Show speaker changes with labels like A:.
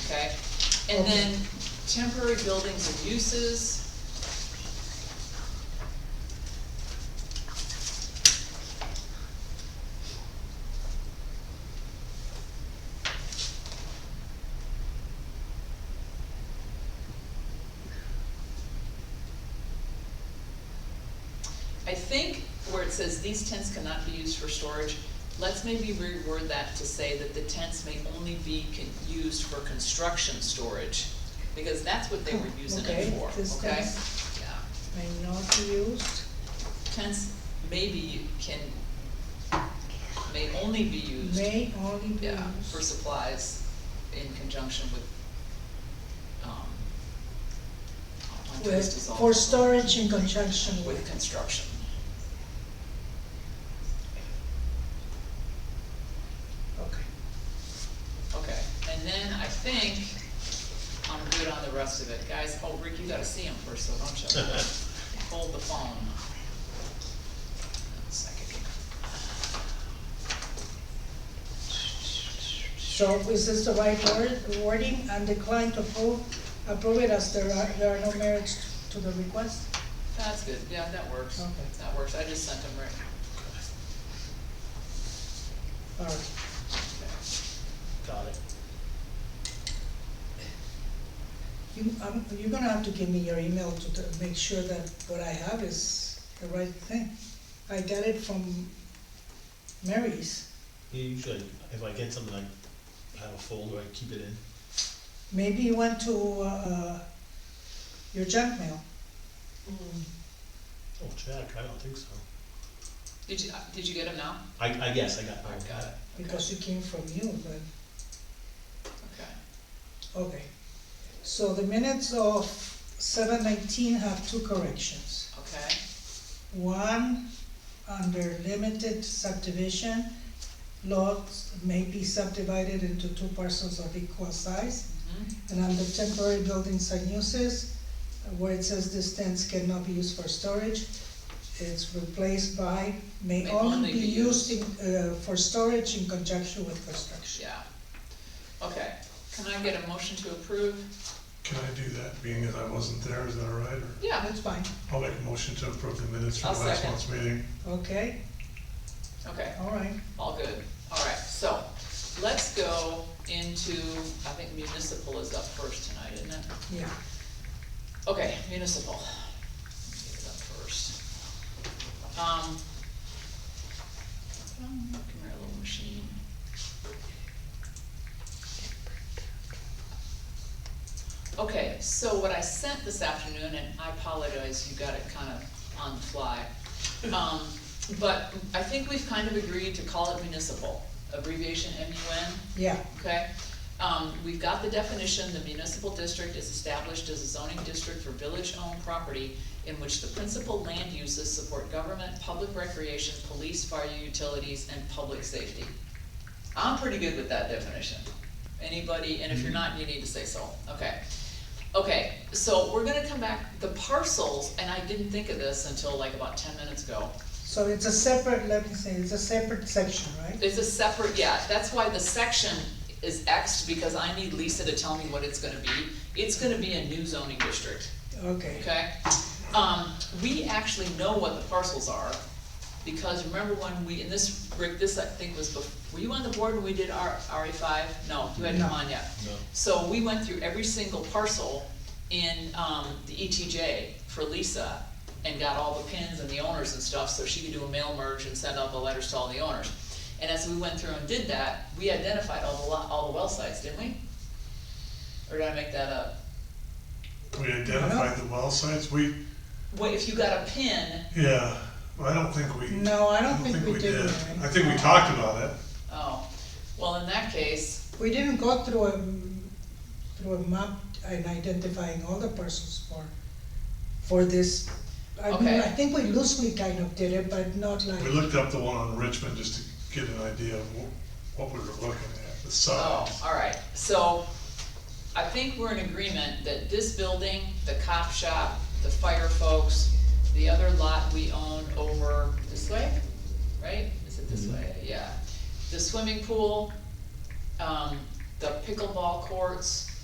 A: okay? And then temporary buildings and uses. I think where it says these tents cannot be used for storage, let's maybe reword that to say that the tents may only be con- used for construction storage. Because that's what they were using
B: Oh, Okay,
A: it for,
B: this
A: okay?
B: tents.
A: Yeah,
B: and not used,
A: tents maybe can, may only be used,
B: may only be
A: yeah, for
B: used.
A: supplies in conjunction with, um, oh, my
B: with-
A: taste is all
B: For
A: over.
B: storage in conjunction
A: With
B: with,
A: construction.
B: okay.
A: Okay, and then I think I'm good on the rest of it, guys, oh, Rick, you gotta see him first, though, don't you? Hold the phone. One second.
B: So is this the right word, wording, and decline to approve, approve it as there are, there are no merits to the request?
A: That's good, yeah, that works,
B: Okay.
A: that works, I just sent him Rick.
B: All right,
A: Okay.
C: Got it.
B: you, um, you're gonna have to give me your email to, to make sure that what I have is the right thing. I got it from Mary's,
C: Usually, if I get something, I have a folder, I keep it in.
B: maybe you went to, uh, your junk mail. Mm-hmm.
C: Oh, check, I don't think so.
A: Did you, uh, did you get him now?
C: I, I guess I got,
A: I
C: I
A: got it.
B: Because it came from you, but,
A: Okay,
B: okay. So the minutes of seven nineteen have two corrections.
A: okay,
B: One, under limited subdivision, lots may be subdivided into two parcels of equal size.
A: mhm,
B: And under temporary buildings and uses, where it says these tents cannot be used for storage, it's replaced by may only be used in, uh, for storage in conjunction with construction.
A: yeah. Okay, can I get a motion to approve?
D: Can I do that, being as I wasn't there, is that all right, or,
A: Yeah,
B: That's fine,
D: I'll make a motion to approve the minutes from
A: I'll
D: last
A: second.
D: month's meeting.
B: okay,
A: okay.
B: all right.
A: All good, all right, so, let's go into, I think municipal is up first tonight, isn't it?
B: Yeah,
A: Okay, municipal. Get it up first. Um. um, Come here, little machine. Okay, so what I sent this afternoon, and I apologize, you got it kind of on the fly. Um, but I think we've kind of agreed to call it municipal, abbreviation M U N
B: yeah,
A: okay? Um, we've got the definition, the municipal district is established as a zoning district for village-owned property in which the principal land uses support government, public recreation, police, fire, utilities, and public safety. I'm pretty good with that definition. Anybody, and if you're not, you need to say so, okay? Okay, so we're gonna come back, the parcels, and I didn't think of this until like about ten minutes ago.
B: so it's a separate, let me say, it's a separate section, right?
A: It's a separate, yeah, that's why the section is Xed, because I need Lisa to tell me what it's gonna be. It's gonna be a new zoning district,
B: Okay,
A: okay? Um, we actually know what the parcels are, because remember when we, and this, Rick, this I think was bef- were you on the board when we did our RE five? No, you hadn't come on yet.
C: No.
A: So we went through every single parcel in, um, the ETJ for Lisa and got all the pins and the owners and stuff, so she could do a mail merge and send out the letters to all the owners. And as we went through and did that, we identified all the lot, all the well sites, didn't we? Or did I make that up?
D: We identified the well sites, we,
A: Well, if you got a pin,
D: yeah, well, I don't think we.
B: no, I don't think we did, Mary.
D: I think we talked about it,
A: oh, well, in that case,
B: We didn't go through a, through a map and identifying all the parcels for, for this. I mean,
A: Okay.
B: I think we loosely kind of did it, but not like,
D: we looked up the one on Richmond just to get an idea of wh- what we were looking at, the
A: Oh,
D: size.
A: all right, so I think we're in agreement that this building, the cop shop, the fire folks, the other lot we own over this way, right? Is it this way? Yeah. The swimming pool, um, the pickleball courts,